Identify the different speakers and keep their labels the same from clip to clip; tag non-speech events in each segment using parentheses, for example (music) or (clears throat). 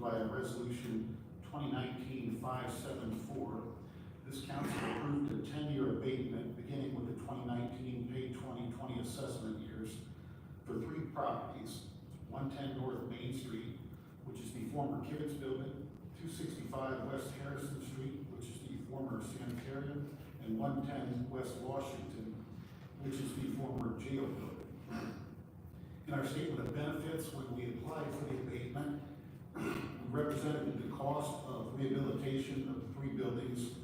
Speaker 1: by resolution 2019-574. This council approved a ten-year abatement beginning with the 2019 pay twenty twenty assessment years for three properties. One ten North Main Street, which is the former Kivitz Building, two sixty-five West Harrison Street, which is the former sanitarium, and one ten West Washington, which is the former jail building. In our statement of benefits, when we applied for the abatement, (clears throat) we represented the cost of rehabilitation of the three buildings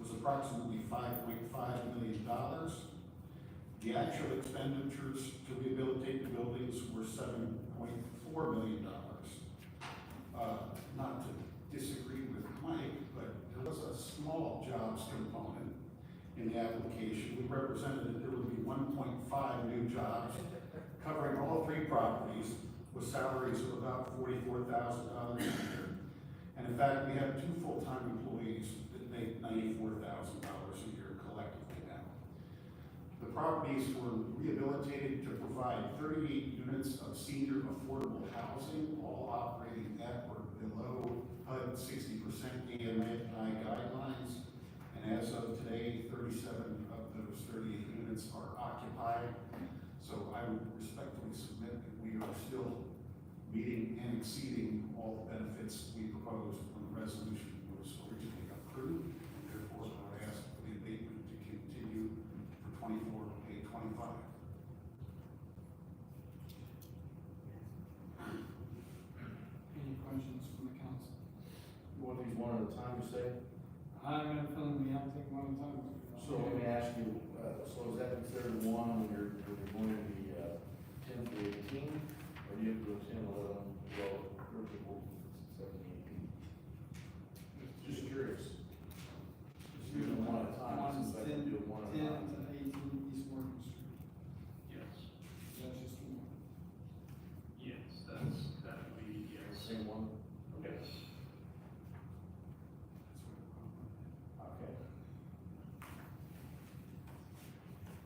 Speaker 1: was approximately five point five million dollars. The actual expenditures to rehabilitate the buildings were seven point four million dollars. Uh, Not to disagree with Mike, but there was a small jobs component in the application. We represented that there would be one point five new jobs covering all three properties with salaries of about forty-four thousand dollars a year. And in fact, we have two full-time employees that make ninety-four thousand dollars a year collectively now. The properties were rehabilitated to provide thirty-eight units of senior affordable housing, all operating at or below HUD sixty percent AMI guidelines. And as of today, thirty-seven of those thirty-eight units are occupied. So I would respectfully submit that we are still meeting and exceeding all the benefits we proposed when the resolution was originally approved. And therefore, I would ask for the abatement to continue for twenty-four, pay twenty-five.
Speaker 2: Any questions from the council?
Speaker 3: You want these one at a time, you say?
Speaker 2: I got a feeling we have to take one at a time.
Speaker 3: So let me ask you, uh, so is that considered one when you're, when you're going to be, uh, ten to eighteen? Or do you have to go ten, eleven, twelve, thirteen, fourteen, seventeen, eighteen? Just curious. Just do them one at a time,
Speaker 2: One is
Speaker 3: since I can do them one at a
Speaker 2: Ten
Speaker 3: time.
Speaker 2: to eighteen East Morgan Street.
Speaker 4: Yes,
Speaker 2: That's just one.
Speaker 4: yes, that's, that would be, yes.
Speaker 3: Same one? Okay.
Speaker 4: Yes.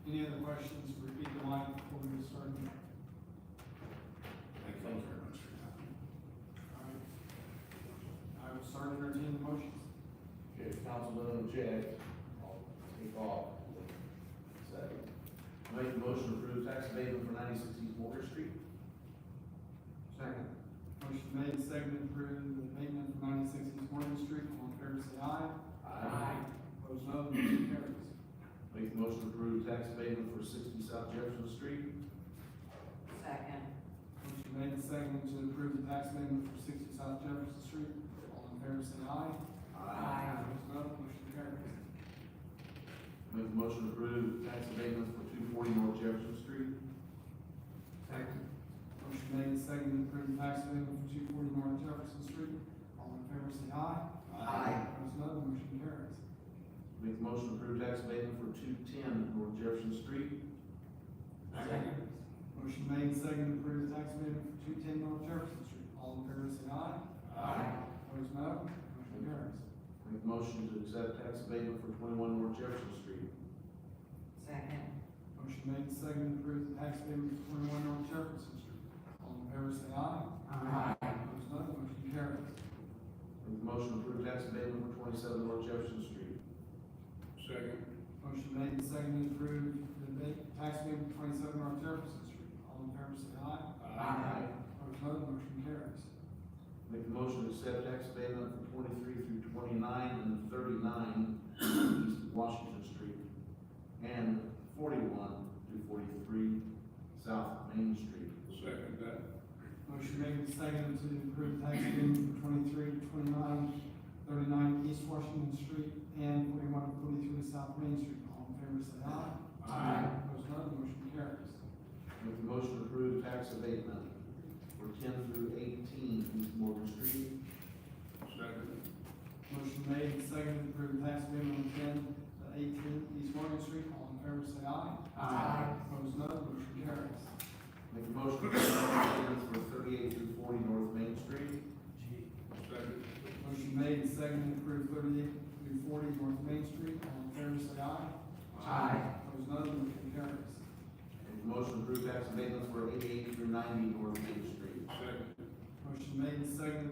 Speaker 2: Any other questions? Repeat the line before we start.
Speaker 1: Thank you very much for your time.
Speaker 2: All right. I will start entertaining the motions.
Speaker 3: Okay, council doesn't object, I'll take off. Second. Make a motion to approve tax abatement for ninety-six East Morgan Street.
Speaker 2: Second. Motion made, seconded, approved, the abatement for ninety-six East Morgan Street. All in favor, say aye. Opposed, no. Motion carries.
Speaker 3: Make a motion to approve tax abatement for sixty South Jefferson Street.
Speaker 5: Second.
Speaker 2: Motion made, seconded, to approve the tax abatement for sixty South Jefferson Street. All in favor, say aye. Opposed, no. Motion carries.
Speaker 3: Make a motion to approve tax abatement for two forty North Jefferson Street.
Speaker 2: Second. Motion made and seconded to approve tax abatement for two forty North Jefferson Street. All in favor, say aye.
Speaker 5: Aye.
Speaker 2: Opposed, no. The Motion carries.
Speaker 3: Make a motion to approve tax abatement for two ten North Jefferson Street.
Speaker 5: Second.
Speaker 2: Motion made and seconded to approve the tax abatement for two ten North Jefferson Street. All in favor, say aye. Opposed, no. Motion carries.
Speaker 3: Make a motion to accept tax abatement for twenty-one North Jefferson Street.
Speaker 5: Second.
Speaker 2: Motion made and seconded to approve the tax abatement for twenty-one North Jefferson Street. All in favor, say aye. Opposed, no. The Motion carries.
Speaker 3: Make a motion to approve tax abatement for twenty-seven North Jefferson Street.
Speaker 4: Second.
Speaker 2: Motion made and seconded to approve the abate- tax abatement for twenty-seven North Jefferson Street. All in favor, say aye. Opposed, no. The Motion carries.
Speaker 3: Make a motion to accept tax abatement for twenty-three through twenty-nine and thirty-nine East Washington Street and forty-one through forty-three South Main Street.
Speaker 4: Second that.
Speaker 2: Motion made and seconded to approve tax abatement for 23, 29, 39 East Washington Street and 41, 43 South Main Street. All in favor, say aye. Opposed, no. The motion carries.
Speaker 3: Make a motion to approve tax abatement for ten through eighteen East Morgan Street.
Speaker 4: Second.
Speaker 2: Motion made and seconded to approve tax abatement for ten to eighteen East Morgan Street. All in favor, say aye.
Speaker 5: Aye.
Speaker 2: Opposed, no. The motion carries.
Speaker 3: Make a motion to accept tax abatement for thirty-eight through forty North Main Street.
Speaker 4: Second.
Speaker 2: Motion made and seconded to approve thirty-eight through forty North Main Street. All in favor, say aye. Opposed, no. The motion carries.
Speaker 3: Make a motion to approve tax abatement for eighty-eight through ninety North Main Street.
Speaker 4: Second.
Speaker 2: Motion made and seconded